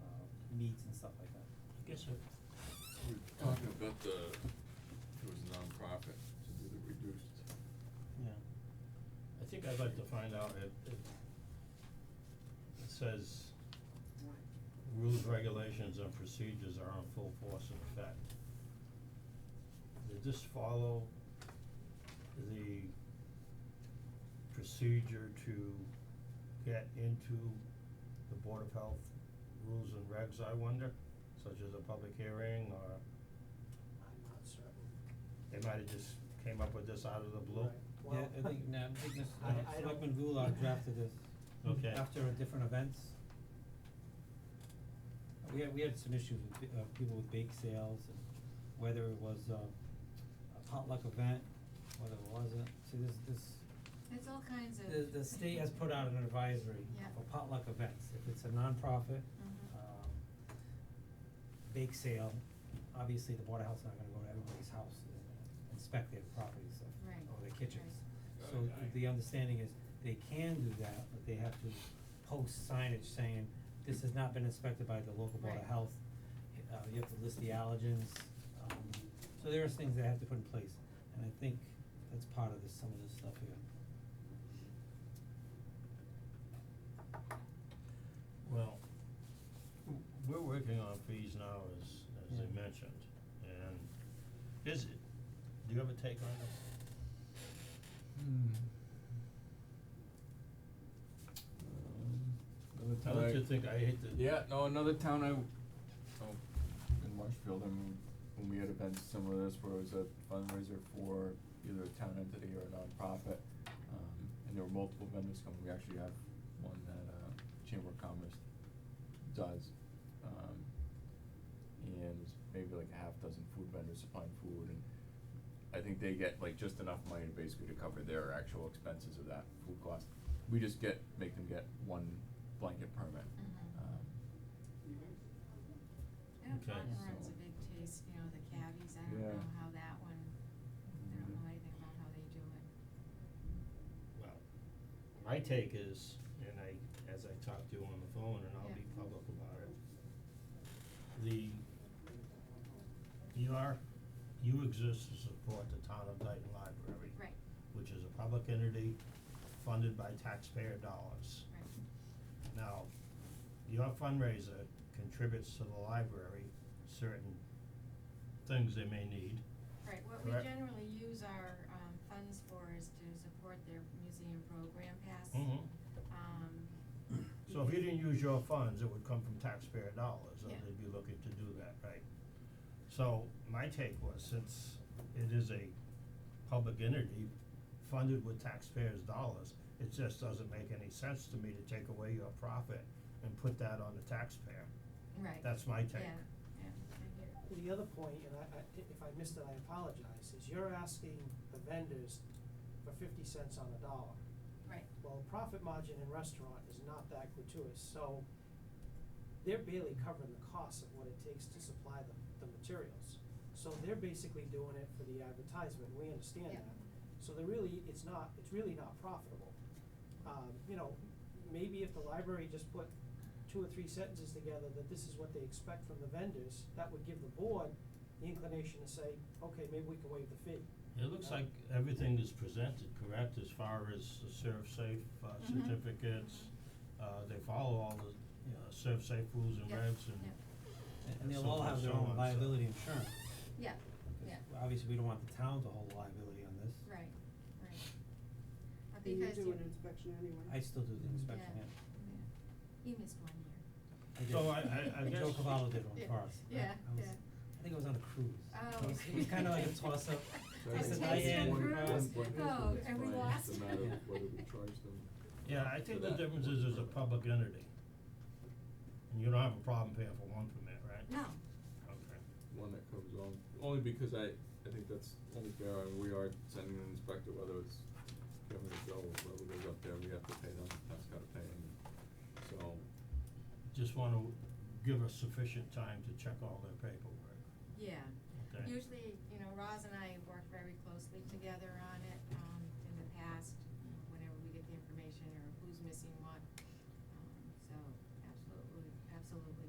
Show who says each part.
Speaker 1: um, meats and stuff like that.
Speaker 2: I guess it,
Speaker 3: We were talking about the, it was nonprofit to do the reduced.
Speaker 2: yeah. I think I'd like to find out if, if it says rules, regulations and procedures are in full force and effect. Did this follow the procedure to get into the Board of Health rules and regs, I wonder? Such as a public hearing or
Speaker 4: I'm not certain.
Speaker 2: they might have just came up with this out of the blue?
Speaker 4: Right. Well,
Speaker 1: Yeah, I think, no, I think this,
Speaker 4: I-
Speaker 1: uh,
Speaker 4: I
Speaker 1: Selectman
Speaker 4: don't-
Speaker 1: Goulart drafted this
Speaker 2: Okay.
Speaker 1: after a different events. Uh, We had, we had some issues with pe- uh people with bake sales and whether it was uh a potluck event, whether it wasn't, see this, this,
Speaker 5: It's all kinds of.
Speaker 1: the, the state has put out an advisory
Speaker 5: Yeah.
Speaker 1: for potluck events, if it's a nonprofit,
Speaker 5: Mhm.
Speaker 1: um, bake sale, obviously the Board of Health's not gonna go to everybody's house and inspect their properties or,
Speaker 5: Right,
Speaker 1: or their kitchens.
Speaker 3: right.
Speaker 1: So th- the understanding is they can do that, but they have to post signage saying, this has not been inspected by the local Board of
Speaker 5: Right.
Speaker 1: Health. Uh, you have to list the allergens, um, so there are things they have to put in place, and I think that's part of this, some of this stuff here.
Speaker 2: Well, w- we're working on fees now, as, as
Speaker 1: Yeah.
Speaker 2: they mentioned, and is it, do you have a take on this?
Speaker 3: Another
Speaker 2: I'll
Speaker 3: town I-
Speaker 2: let you think, I hate to.
Speaker 3: Yeah, no, another town I, oh, in Marshfield, I mean, when we had events similar to this where it was a fundraiser for either a town entity or a nonprofit, um, and there were multiple vendors coming, we actually have one that, uh, Chamber of Commerce does, um, and maybe like a half dozen food vendors supplying food, and I think they get like just enough money basically to cover their actual expenses of that food cost. We just get, make them get one blanket permit,
Speaker 5: Mhm.
Speaker 3: um,
Speaker 5: I know
Speaker 2: Okay.
Speaker 5: John runs
Speaker 3: So-
Speaker 5: a big taste, you know, the cavies, I don't
Speaker 3: Yeah.
Speaker 5: know how that one, I don't know anything about how they do it.
Speaker 2: Well, my take is, and I, as I talked to you on the phone, and I'll be
Speaker 5: Yeah.
Speaker 2: public about it. The, your, you exist to support the town of Dayton Library.
Speaker 5: Right,
Speaker 2: Which is a public entity funded by taxpayer dollars.
Speaker 5: right,
Speaker 2: Now, your fundraiser contributes to the library certain things they may need.
Speaker 5: right, what we
Speaker 2: Correct.
Speaker 5: generally use our um funds for is to support their museum program pass. Um.
Speaker 2: Mm-hmm. So if you didn't use your funds, it would come from taxpayer dollars, and
Speaker 5: Yeah.
Speaker 2: they'd be looking to do that, right? So my take was, since it is a public entity funded with taxpayers' dollars, it just doesn't make any sense to me to take away your profit and put that on the taxpayer.
Speaker 5: Right, yeah,
Speaker 2: That's my take.
Speaker 5: yeah, I get it.
Speaker 4: the other point, and I, I, i- if I missed it, I apologize, is you're asking the vendors for fifty cents on a dollar.
Speaker 5: right,
Speaker 4: Well, profit margin in restaurant is not that gratuitous, so they're barely covering the cost of what it takes to supply the, the materials. So they're basically doing it for the advertisement, we understand
Speaker 5: Yeah.
Speaker 4: that. So they're really, it's not, it's really not profitable. Um, you know, maybe if the library just put two or three sentences together that this is what they expect from the vendors, that would give the board the inclination to say, okay, maybe we can waive the fee.
Speaker 2: It looks like everything is presented correct as far as the serve safe uh,
Speaker 5: Mhm.
Speaker 2: certificates. Uh, they follow all the, uh, serve safe rules and
Speaker 5: Yeah,
Speaker 2: regs and,
Speaker 5: yeah.
Speaker 1: And- And
Speaker 2: And
Speaker 1: they'll all
Speaker 2: so-
Speaker 1: have their
Speaker 2: so
Speaker 1: own
Speaker 2: on, so-
Speaker 1: liability insurance.
Speaker 5: yeah, yeah.
Speaker 1: Well, Obviously, we don't want the town to hold liability on this.
Speaker 5: Right, right. Uh,
Speaker 6: And you
Speaker 5: Because
Speaker 6: do
Speaker 5: you,
Speaker 6: an inspection anyway.
Speaker 1: I still do the
Speaker 5: yeah,
Speaker 1: inspection, yeah.
Speaker 5: yeah, you missed one year.
Speaker 1: I did.
Speaker 2: So I- I- I
Speaker 1: And Joe
Speaker 2: guess-
Speaker 1: Cavallo did one
Speaker 5: Yeah,
Speaker 1: for us. I-
Speaker 5: yeah,
Speaker 1: I was-
Speaker 5: yeah.
Speaker 1: I think it was on a cruise.
Speaker 5: Oh.
Speaker 1: It was, it was kinda like a toss-up.
Speaker 3: So
Speaker 5: A
Speaker 3: I
Speaker 1: It's
Speaker 3: think
Speaker 1: a
Speaker 5: taste
Speaker 3: that's
Speaker 1: Diane
Speaker 3: one-
Speaker 5: and
Speaker 3: one
Speaker 5: cruise.
Speaker 3: point is that
Speaker 5: Oh,
Speaker 3: it's
Speaker 5: and we
Speaker 3: fine.
Speaker 5: lost.
Speaker 3: It's a matter of whether we charge them.
Speaker 2: yeah, I think
Speaker 3: for
Speaker 2: the
Speaker 3: that
Speaker 2: difference
Speaker 3: or
Speaker 2: is it's a
Speaker 3: whatever.
Speaker 2: public entity. And you don't have a problem paying for one permit, right?
Speaker 5: No,
Speaker 2: Okay.
Speaker 3: One that covers all, only because I, I think that's only fair, and we are sending an inspector, whether it's Kevin or Joe, or whoever goes up there, we have to pay them, that's gotta pay them, so.
Speaker 2: Just wanna give us sufficient time to check all their paperwork,
Speaker 5: yeah.
Speaker 2: okay?
Speaker 5: Usually, you know, Roz and I work very closely together on it, um, Um,